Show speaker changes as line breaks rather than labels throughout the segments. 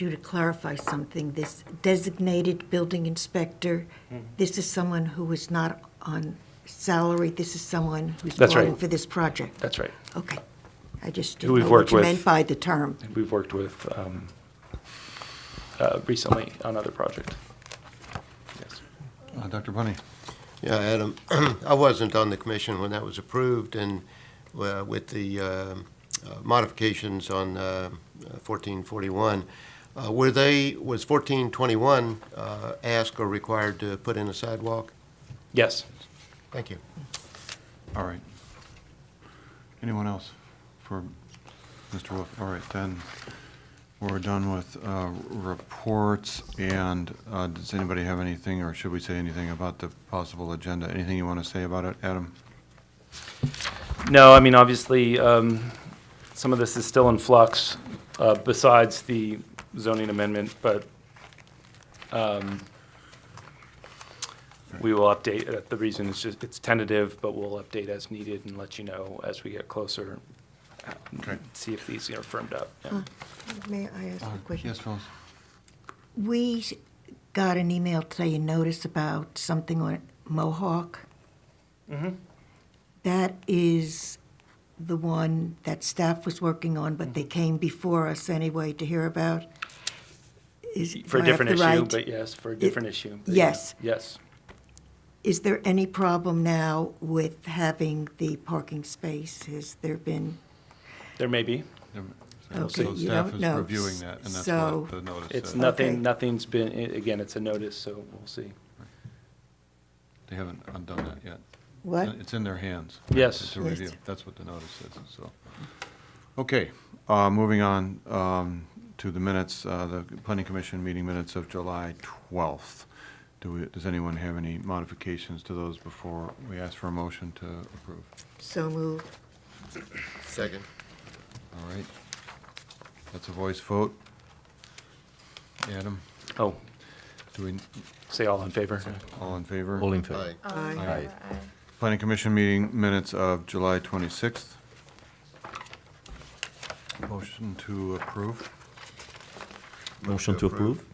you to clarify something. This designated building inspector,
Mm-hmm.
this is someone who is not on salary. This is someone who's
That's right.
going for this project.
That's right.
Okay. I just didn't
Who we've
know what
worked
you
with.
meant by the term.
And we've worked with um, uh, recently on other project. Yes.
Uh, Dr. Bunny,
Yeah, Adam, I wasn't on the commission when that was approved, and uh, with the um, uh, modifications on uh, 1441, uh, were they, was 1421 uh, asked or required to put in a sidewalk?
Yes.
Thank you.
all right. Anyone else for Mr. Wolf? All right, then, we're done with uh, reports, and uh, does anybody have anything, or should we say anything about the possible agenda? Anything you want to say about it, Adam?
No, I mean, obviously, um, some of this is still in flux, uh, besides the zoning amendment, but, um, we will update, uh, the reason is just, it's tentative, but we'll update as needed and let you know as we get closer. uh,
Okay.
See if these are firmed up. Yeah.
May I ask
Uh,
a question?
Yes, Phyllis?
We got an email today, a notice about something on Mohawk.
Mm-hmm.
That is the one that staff was working on, but they
Mm-hmm.
came before us anyway to hear about. Is-
For a
do I have
different
the
issue,
right-
but yes, for a different issue. but yeah.
yes.
Yes.
Is there any problem now with having the parking space? Has there been?
There may be.
So
Okay, you
staff
don't
is
know.
reviewing that, and that's
So-
what the notice
It's
said.
Okay.
nothing, nothing's been, i- again, it's a notice, so we'll see.
They haven't undone that yet.
What?
It's in their hands.
Yes.
It's a
Yes.
review. That's what the notice says, so. Okay, uh, moving on, um, to the minutes, uh, the planning commission meeting minutes of July twelfth. Do we, does anyone have any modifications to those before we ask for a motion to approve?
So moved.
Second.
All right. That's a voice vote. Adam,
Oh,
do we,
say all in favor.
all in favor?
All in favor?
Aye.
Aye.
Aye. Planning commission meeting minutes of July twenty-sixth. Motion to approve,
Motion to approve?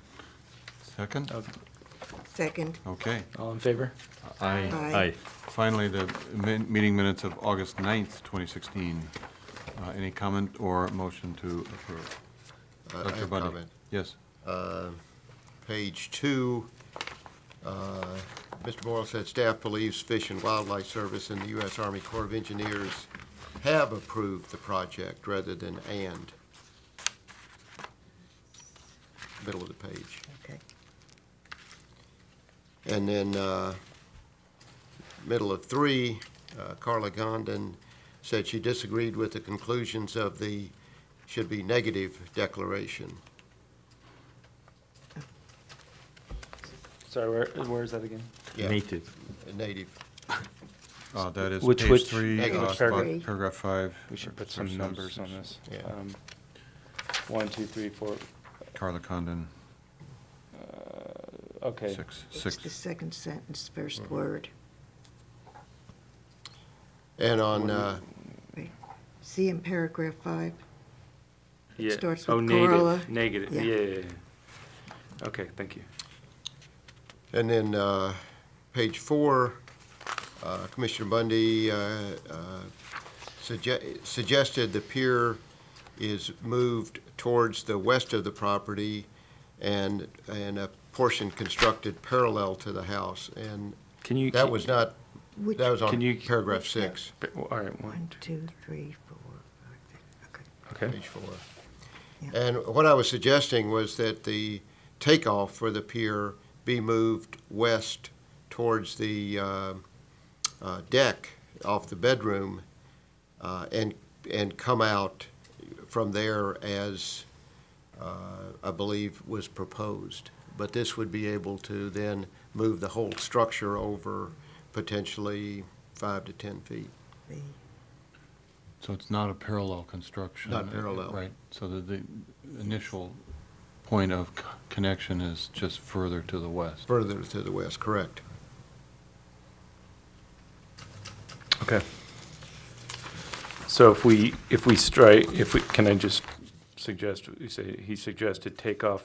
second?
Second.
Okay.
All in favor?
Aye.
Finally, the min- meeting minutes of August 9th, 2016. Uh, Any comment or motion to approve?
I- I
Dr.
have
Bundy?
comment.
Yes.
Page two, uh, Mr. Morrow said staff believes Fish and Wildlife Service and the U.S. Army Corps of Engineers have approved the project rather than and. Middle of the page.
Okay.
And then, uh, middle of three, uh, Carla Gondon said she disagreed with the conclusions of the, should be negative declaration.
Sorry, where, where is that again?
Yeah,
Native.
Native.
Uh, That is
Which-
page
which-
three,
Negative
uh, spot-
paragraph.
paragraph five.
We should put
first
some
sentence.
numbers on this.
Yeah.
Um, One, two, three, four,
Carla Condon,
okay.
six,
It's the
six.
second sentence, first word.
And on, uh,
See in paragraph five?
Yeah.
starts
Oh,
with
native,
gorilla.
Negative,
Yeah.
yeah, yeah, yeah. Okay, thank you.
And then, uh, page four, uh, Commissioner Bundy, uh, uh, sugge- suggested the pier is moved towards the west of the property and, and a portion constructed parallel to the house. And
Can you?
that was not,
Which-
that was
Can
on
you-
paragraph six,
All right, one,
One, two, three, four, five, six, okay.
okay.
page four.
Yeah.
And what I was suggesting was that the takeoff for the pier be moved west towards the uh, uh, deck off the bedroom uh, and, and come out from there as uh, I believe was proposed. But this would be able to then move the whole structure over potentially five to 10 feet.
So it's not a parallel construction.
Not parallel.
Right, so the, the initial point of c- connection is just further to the west.
Further to the west, correct.
Okay. So if we, if we strike, if we, can I just suggest, he say- he suggested take off